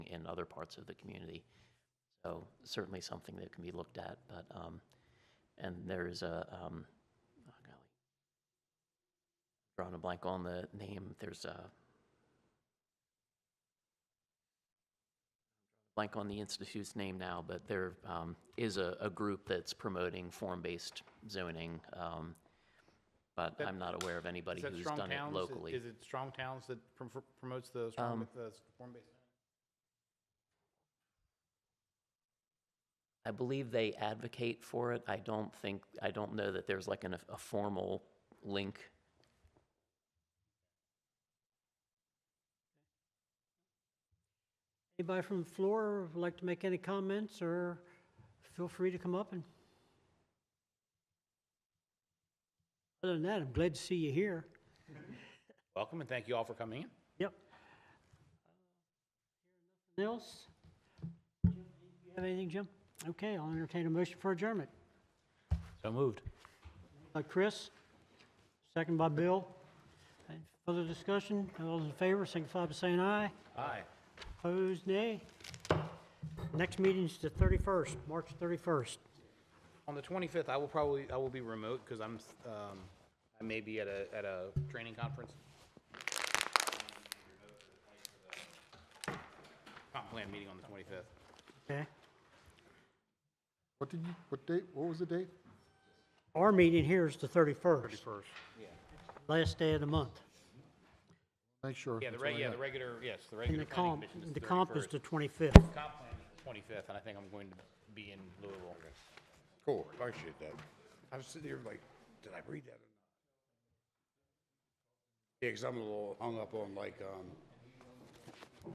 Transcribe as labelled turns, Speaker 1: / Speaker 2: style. Speaker 1: other parts of the community. So certainly something that can be looked at, but, um, and there's a, um, oh golly. Drawing a blank on the name, there's a blank on the institute's name now, but there, um, is a, a group that's promoting form-based zoning, um, but
Speaker 2: That-
Speaker 1: I'm not aware of anybody
Speaker 2: Is that
Speaker 1: who's
Speaker 2: Strong
Speaker 1: done it
Speaker 2: Towns?
Speaker 1: locally.
Speaker 2: Is it Strong Towns that prom- promotes the strong,
Speaker 1: Um,
Speaker 2: the form-based?
Speaker 1: I believe they advocate for it. I don't think, I don't know that there's like an, a formal link.
Speaker 3: Anybody from the floor would like to make any comments, or feel free to come up and... Other than that, I'm glad to see you here.
Speaker 2: Welcome, and thank you all for coming in.
Speaker 3: Yep. Anything else? You have anything, Jim? Okay, I'll entertain a motion for adjournment.
Speaker 2: So moved.
Speaker 3: By Chris, second by Bill. Any Further discussion? All those in favor, signify by saying aye.
Speaker 2: Aye.
Speaker 3: Opposed, nay. Next meeting's the 31st, March 31st.
Speaker 2: On the 25th, I will probably, I will be remote because I'm, um, I may be at a, at a training conference. Comp plan meeting on the 25th.
Speaker 3: Okay.
Speaker 4: What did you, what date, what was the date?
Speaker 3: Our meeting here is the 31st,
Speaker 4: First.
Speaker 3: last day of the month.
Speaker 4: Make sure.
Speaker 2: Yeah, the
Speaker 4: that's what
Speaker 2: reg,
Speaker 4: I
Speaker 2: yeah,
Speaker 4: got.
Speaker 2: the regular, yes, the
Speaker 3: And
Speaker 2: regular
Speaker 3: the
Speaker 2: planning
Speaker 3: comp,
Speaker 2: commission is
Speaker 3: the
Speaker 2: the
Speaker 3: comp is
Speaker 2: 31st.
Speaker 3: the 25th.
Speaker 2: Comp plan is the 25th, and I think I'm going to be in Louisville.
Speaker 5: Cool, I appreciate that. I was sitting here like, did I read that or not? Yeah, 'cause I'm a little hung up on like, um,